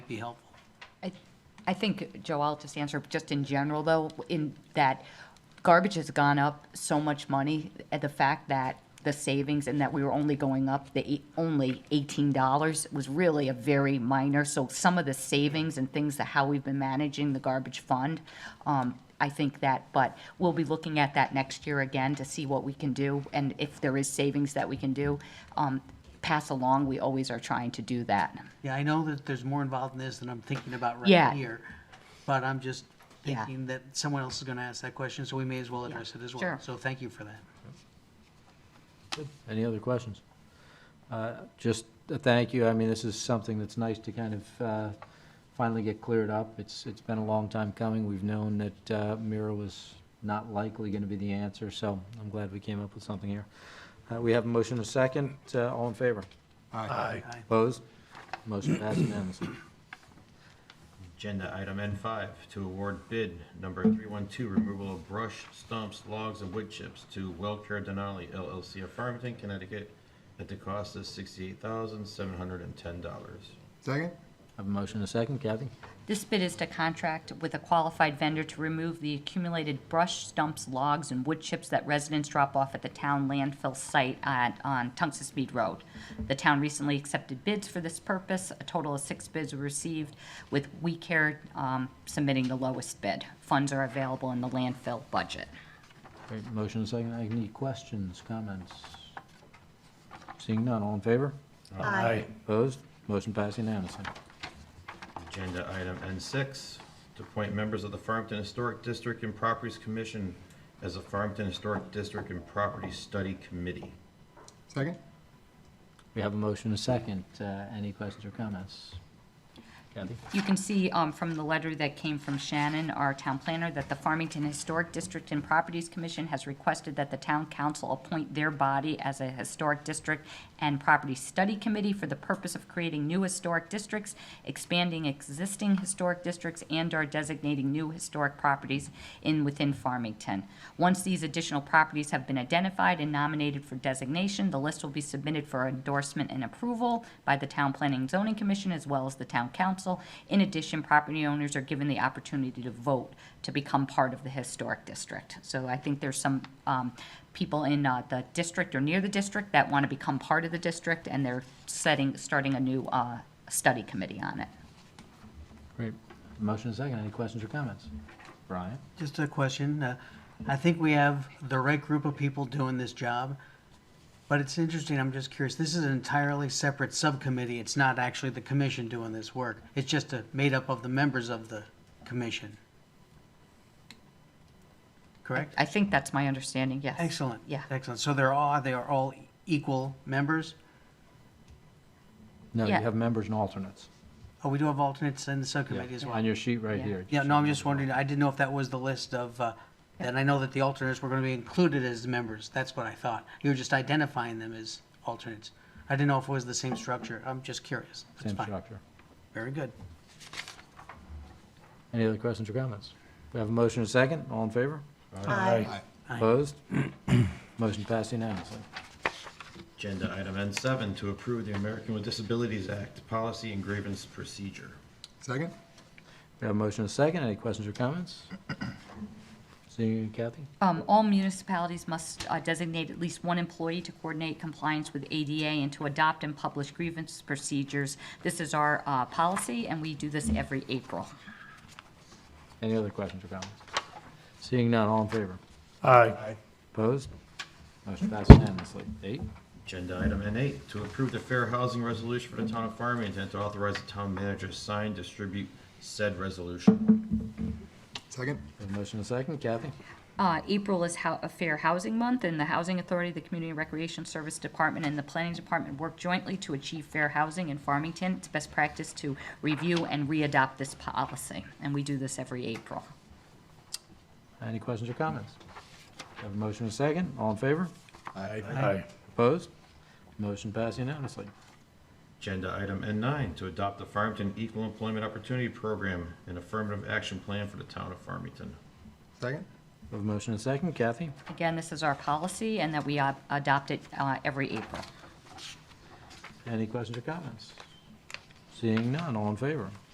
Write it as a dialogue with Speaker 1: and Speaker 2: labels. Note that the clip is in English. Speaker 1: be helpful.
Speaker 2: I- I think, Joe, I'll just answer, just in general, though, in that garbage has gone up so much money, and the fact that the savings and that we were only going up the, eight- only eighteen dollars was really a very minor, so some of the savings and things that how we've been managing the garbage fund, um, I think that, but we'll be looking at that next year again to see what we can do, and if there is savings that we can do, um, pass along, we always are trying to do that.
Speaker 1: Yeah, I know that there's more involved in this than I'm thinking about
Speaker 2: Yeah.
Speaker 1: right here, but I'm just
Speaker 2: Yeah.
Speaker 1: thinking that someone else is gonna ask that question, so we may as well address it as well.
Speaker 2: sure.
Speaker 1: So thank you for that.
Speaker 3: Any other questions? Uh, Just a thank you. I mean, this is something that's nice to kind of uh, finally get cleared up. It's, it's been a long time coming. We've known that uh, Mira was not likely going to be the answer, so I'm glad we came up with something here. Uh, We have a motion and a second. Uh, All in favor?
Speaker 4: Aye.
Speaker 1: Aye.
Speaker 3: Opposed? Motion passed unanimously.
Speaker 5: Agenda item N5, to award bid number 312, removal of brush, stumps, logs, and wood chips to Wellcare Denali LLC of Farmington, Connecticut, at the cost of $68,710.
Speaker 4: Second?
Speaker 3: Have a motion and a second. Kathy?
Speaker 2: This bid is to contract with a qualified vendor to remove the accumulated brush, stumps, logs, and wood chips that residents drop off at the town landfill site at, on Tungus Speed Road. The town recently accepted bids for this purpose. A total of six bids were received, with We Care um, submitting the lowest bid. Funds are available in the landfill budget.
Speaker 3: Great. Motion and a second. Any questions, comments? Seeing none. All in favor?
Speaker 6: Aye.
Speaker 3: Opposed? Motion passed unanimously.
Speaker 5: Agenda item N6, to appoint members of the Farmington Historic District and Properties Commission as a Farmington Historic District and Property Study Committee.
Speaker 4: Second?
Speaker 3: We have a motion and a second. Uh, Any questions or comments? Kathy?
Speaker 2: You can see um, from the letter that came from Shannon, our town planner, that the Farmington Historic District and Properties Commission has requested that the town council appoint their body as a historic district and property study committee for the purpose of creating new historic districts, expanding existing historic districts, and/or designating new historic properties in, within Farmington. Once these additional properties have been identified and nominated for designation, the list will be submitted for endorsement and approval by the Town Planning and Zoning Commission as well as the Town Council. In addition, property owners are given the opportunity to vote to become part of the historic district. So I think there's some um, people in uh, the district or near the district that want to become part of the district, and they're setting, starting a new uh, study committee on it.
Speaker 3: Great. Motion and second. Any questions or comments? Brian?
Speaker 1: Just a question. uh, I think we have the right group of people doing this job, but it's interesting, I'm just curious, this is an entirely separate subcommittee. It's not actually the commission doing this work. It's just uh, made up of the members of the commission. Correct?
Speaker 2: I think that's my understanding, yes.
Speaker 1: Excellent.
Speaker 2: Yeah.
Speaker 1: Excellent. So they're all, they are all equal members?
Speaker 3: No, you
Speaker 2: Yeah.
Speaker 3: have members and alternates.
Speaker 1: Oh, we do have alternates in the subcommittee as
Speaker 3: On
Speaker 1: well.
Speaker 3: your sheet right
Speaker 2: Yeah.
Speaker 3: here.
Speaker 1: Yeah, no, I'm just wondering, I didn't know if that was the list of, uh, and I know that the alternates were going to be included as members. That's what I thought. You were just identifying them as alternates. I didn't know if it was the same structure. I'm just curious. That's
Speaker 3: Same
Speaker 1: fine.
Speaker 3: structure.
Speaker 1: Very good.
Speaker 3: Any other questions or comments? We have a motion and a second. All in favor?
Speaker 6: Aye.
Speaker 1: Aye.
Speaker 3: Opposed? Motion passed unanimously.
Speaker 5: Agenda item N7, to approve the American with Disabilities Act policy and grievance procedure.
Speaker 4: Second?
Speaker 3: We have a motion and a second. Any questions or comments? Seeing you, Kathy?
Speaker 2: Um, all municipalities must uh, designate at least one employee to coordinate compliance with ADA and to adopt and publish grievance procedures. This is our, uh, policy, and we do this every April.
Speaker 3: Any other questions or comments? Seeing none. All in favor?
Speaker 6: Aye.
Speaker 3: Opposed? Motion passed unanimously. Eight?
Speaker 5: Agenda item N8, to approve the fair housing resolution for the town of Farmington and to authorize the town manager to sign, distribute said resolution.
Speaker 4: Second?
Speaker 3: We have a motion and a second. Kathy?
Speaker 2: Uh, April is hou- a Fair Housing Month, and the Housing Authority, the Community Recreation Service Department, and the Planning Department work jointly to achieve fair housing in Farmington. It's best practice to review and re-adopt this policy, and we do this every April.
Speaker 3: Any questions or comments? We Have a motion and a second. All in favor?
Speaker 6: Aye.
Speaker 3: Opposed? Motion passed unanimously.
Speaker 5: Agenda item N9, to adopt the Farmington Equal Employment Opportunity Program and affirmative action plan for the town of Farmington.
Speaker 4: Second?
Speaker 3: We have a motion and a second. Kathy?
Speaker 2: Again, this is our policy, and that we uh, adopt it uh, every April.
Speaker 3: Any questions or comments? Seeing none, all in favor?